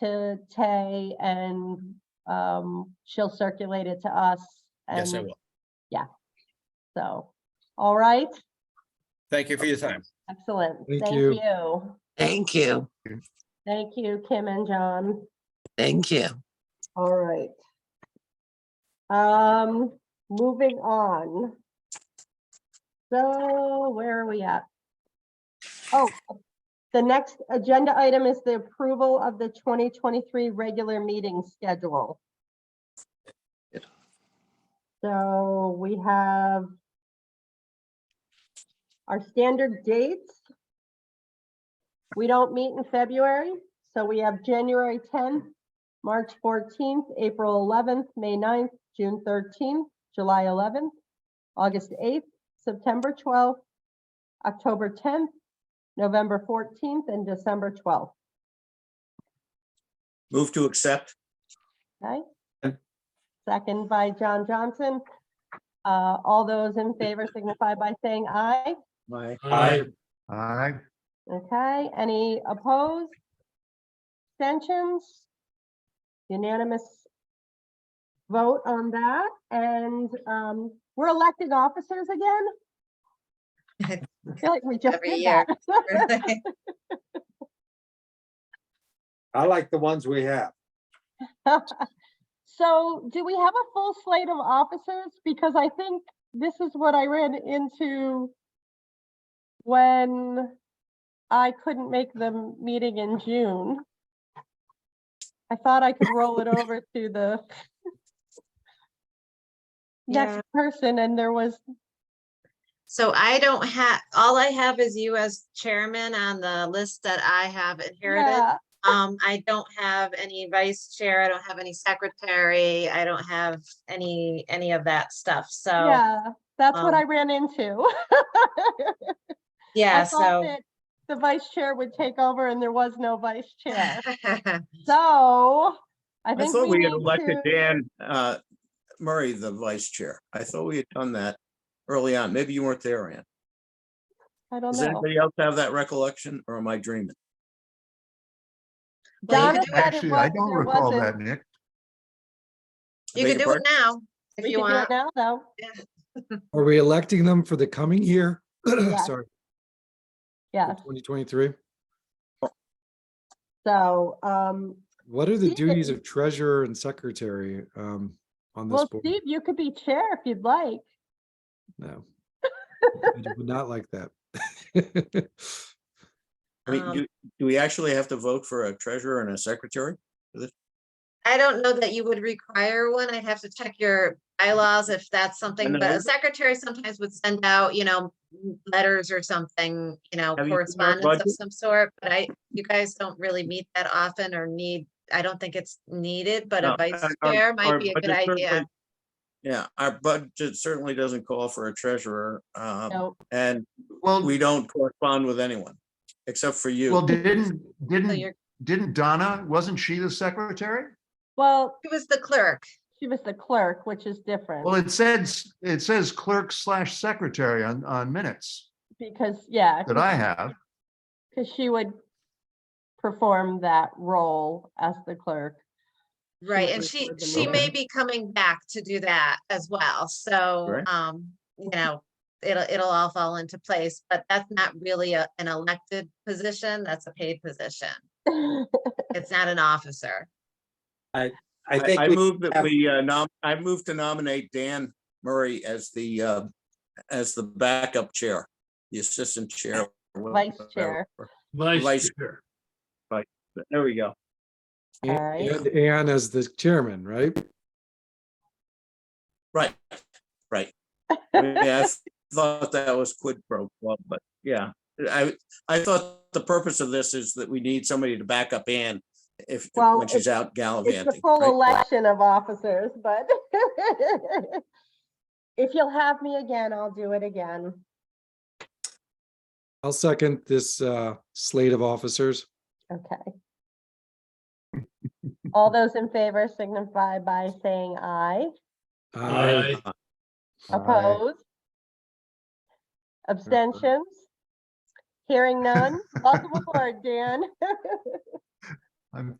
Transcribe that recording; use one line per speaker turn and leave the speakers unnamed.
to Tay and um, she'll circulate it to us.
Yes, I
Um,
and
will.
So, all right,
Thank you for your time.
excellent.
Thank
Thank
you.
you.
Thank you.
Thank you, Kim and John.
Thank you.
All right. Um, moving on. So where are we at? Oh, the next agenda item is the approval of the 2023 regular meeting schedule.
Good.
So we have our standard dates. We don't meet in February, so we have January 10th, March 14th, April 11th, May 9th, June 13th, July 11th, August 8th, September 12th, October 10th, November 14th, and December 12th.
Move to accept.
Okay?
Okay.
Second by John Johnson. Uh, All those in favor signify by saying aye.
Aye.
Aye.
Aye.
Okay, any opposed? Abstentions? Unanimous vote on that, and um, we're electing officers again? I feel like we just
Every
did that.
I like the ones we have.
So do we have a full slate of officers? Because I think this is what I ran into when I couldn't make the m- meeting in June. I thought I could roll it over to the
Yeah.
next person and there was,
So I don't have, all I have is you as chairman on the list that I have inherited.
yeah,
Um, I don't have any vice chair, I don't have any secretary, I don't have any, any of that stuff, so,
yeah, that's what
Oh.
I
um,
ran into. I
yeah,
thought
so.
that The vice chair would take over and there was no vice chair. So I
I
think
thought
we
we had
need
elected
to-
Dan uh, Murray the vice chair. I thought we had done that early on. Maybe you weren't there, Ann.
I don't
Does
know.
anybody else have that recollection or am I dreaming?
Well,
Donna
you could do-
said it
Actually, I
was-
don't
there
recall
wasn't-
that, Nick.
You
Beg
can
your
do it now, if
We
you
can do it
want.
now, though.
Are we electing them for the coming year?
Yeah.
Sorry,
Yes,
twenty twenty-three.
so, um,
What are the
Stephen.
duties of treasurer and secretary um on this
well,
board?
Steve, you could be chair if you'd like.
No. I d- would not like that.
I mean,
Um,
do, do we actually have to vote for a treasurer and a secretary?
I don't know that you would require one. I'd have to check your bylaws if that's something, but
know.
a secretary sometimes would send out, you know, m- letters or something, you know,
Have you seen our
correspondence of
budget?
some sort, but I, you guys don't really meet that often or need, I don't think it's needed, but a
No,
vice
our- our-
chair
our
might be a good
budget certainly-
idea.
Yeah, our budget certainly doesn't call for a treasurer, uh,
No,
and
Well,
we don't correspond with anyone, except for you.
well, didn't,
So
hmm.
didn't,
you're,
didn't Donna, wasn't she the secretary?
well,
he was the clerk.
she was the clerk, which is
Well,
different,
it says, it says clerk slash secretary on, on minutes
because, yeah,
that I have.
because she would perform that role as the clerk.
Right,
was
and
the
she,
clerk in
she
the
may
room.
be coming back to do that as well, so,
Right.
um, you know, it'll, it'll all fall into place, but that's not really a, an elected position, that's a paid position.
Oh,
It's not an officer.
I
I,
think
I
we
move that
have-
we, uh, nom, I move to nominate Dan Murray as the, uh, as the backup chair, the assistant chair.
Vice chair.
Vice chair. Vice, there we go.
And-
Alright.
and Ann as the chairman, right?
Right, right. Yeah, I thought that was quid pro quo, but yeah, I, I thought the purpose of this is that we need somebody to back up Ann if,
Well,
when she's out gallivanting.
It's the full
right?
election of officers, but if you'll have me again, I'll do it again.
I'll second this uh slate of officers.
Okay. All those in favor signify by saying aye.
Aye.
Aye.
Opposed? Abstentions? Hearing none? Welcome aboard, Dan.
I'm